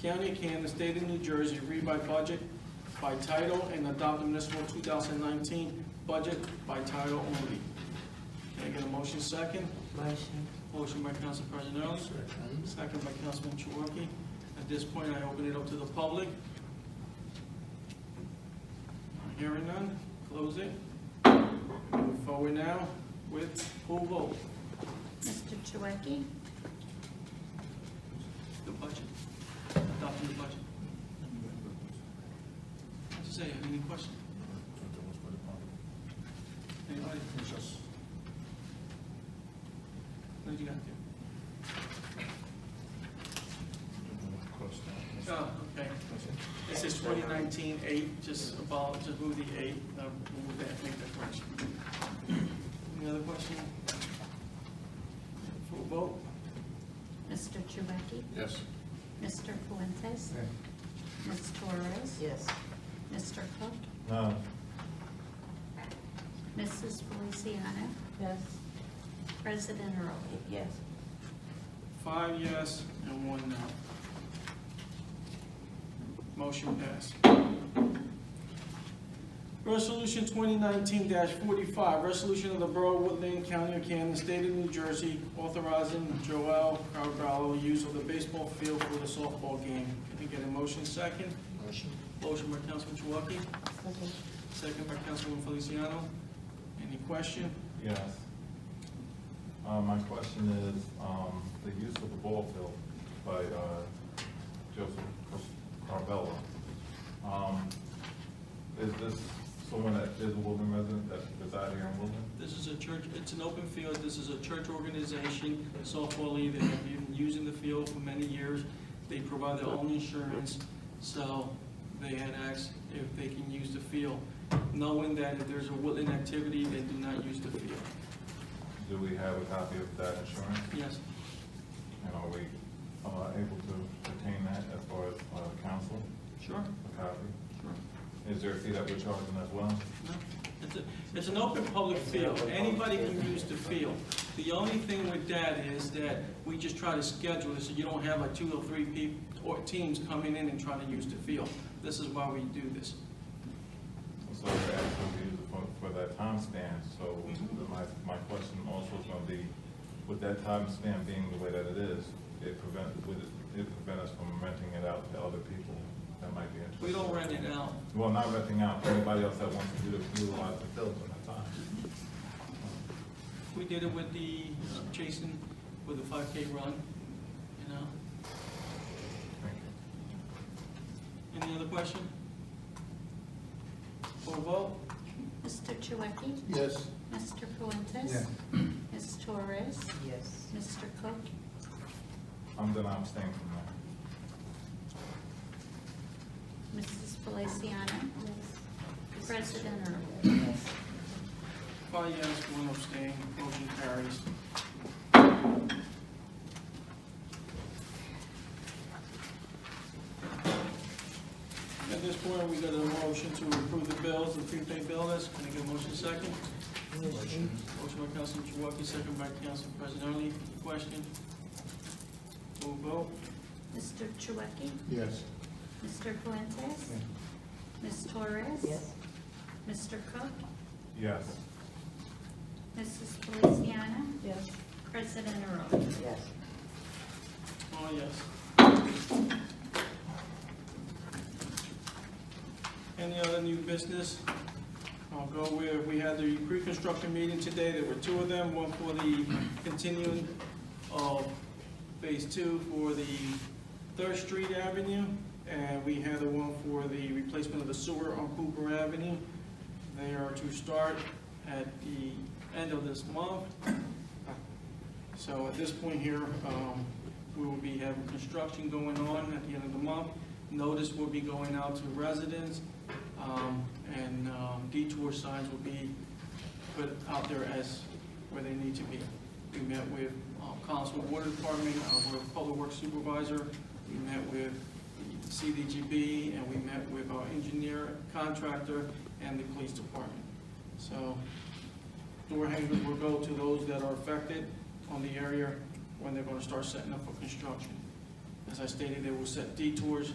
County of Kansas, State of New Jersey, read by budget by title and adopt the municipal 2019 budget by title only. Can I get a motion second? Motion. Motion by Council President Early, second by Councilman Chouwaki. At this point, I open it up to the public. Hearing none, close it. Move forward now with full vote. Mr. Chouwaki? The budget, adopting the budget. Mr. Say, any question? Anybody? No, you got it. Oh, okay. It says 2019-8, just about, just move the 8, uh, move that, make that correction. Any other question? Full vote? Mr. Chouwaki? Yes. Mr. Fuentes? Ms. Torres? Yes. Mr. Cook? Um, No. Mrs. Feliciano? Yes. President Early? Yes. Five yes and one no. Motion passed. Resolution 2019-45, resolution of the Borough of Woodland, County of Camden, State of New Jersey, authorizing Joel Carvalho use of the baseball field for the softball game. Can I get a motion second? Motion. Motion by Councilman Chouwaki, second by Councilman Feliciano. Any question? Yes. Uh, my question is, um, the use of the ball field by, uh, Joseph Car- Carvello. Um, is this someone that is a Woodland resident that resides here in Woodland? This is a church, it's an open field, this is a church organization, softball league, they have been using the field for many years. They provide their own insurance, so they had asked if they can use the field, knowing that if there's a woodland activity, they do not use the field. Do we have a copy of that insurance? Yes, And are we, uh, able to obtain that as far as, uh, council, sure, a copy? sure. Um, Is there a fee that we're charging as well? No, It's a, it's an open public field, anybody can use the field. The only thing with that is that we just try to schedule it so you don't have like two or three people, or teams coming in and trying to use the field. This is why we do this. So we're actually using for, for that time span, so Mhm. my, my question also is gonna be, with that time span being the way that it is, it prevent, would it, it prevent us from renting it out to other people that might be interested? We don't rent it out. Well, not renting out, anybody else that wants to do- utilize the field in that time. We did it with the, uh, Jason, with the 5K run, you know? Thank you. Any other question? For a vote? Mr. Chouwaki? Yes. Mr. Fuentes? Ms. Torres? Yes. Mr. Cook? I'm gonna abstain from that. Mrs. Feliciano? President Early? Five yes, one abstain, motion carries. At this point, we got a motion to approve the bills, the prepaid bill list. Can I get a motion second? Motion. Motion by Councilman Chouwaki, second by Council President Early. Question? Full vote? Mr. Chouwaki? Yes. Mr. Fuentes? Yeah. Ms. Torres? Yes. Mr. Cook? Yes, Mrs. Feliciano? Yes. President Early? Yes. Oh, yes. Any other new business? I'll go where, we had the pre-construction meeting today, there were two of them, one for the continuing of phase two for the Third Street Avenue, and we had the one for the replacement of the sewer on Cooper Avenue. They are to start at the end of this month. So at this point here, um, we will be having construction going on at the end of the month. Notice will be going out to residents, um, and um, detour signs will be put out there as where they need to be. We met with um, Council Water Department, uh, with Public Works Supervisor, we met with CDGB, and we met with our engineer, contractor, and the police department. So door hangers will go to those that are affected on the area when they're gonna start setting up for construction. As I stated, they will set detours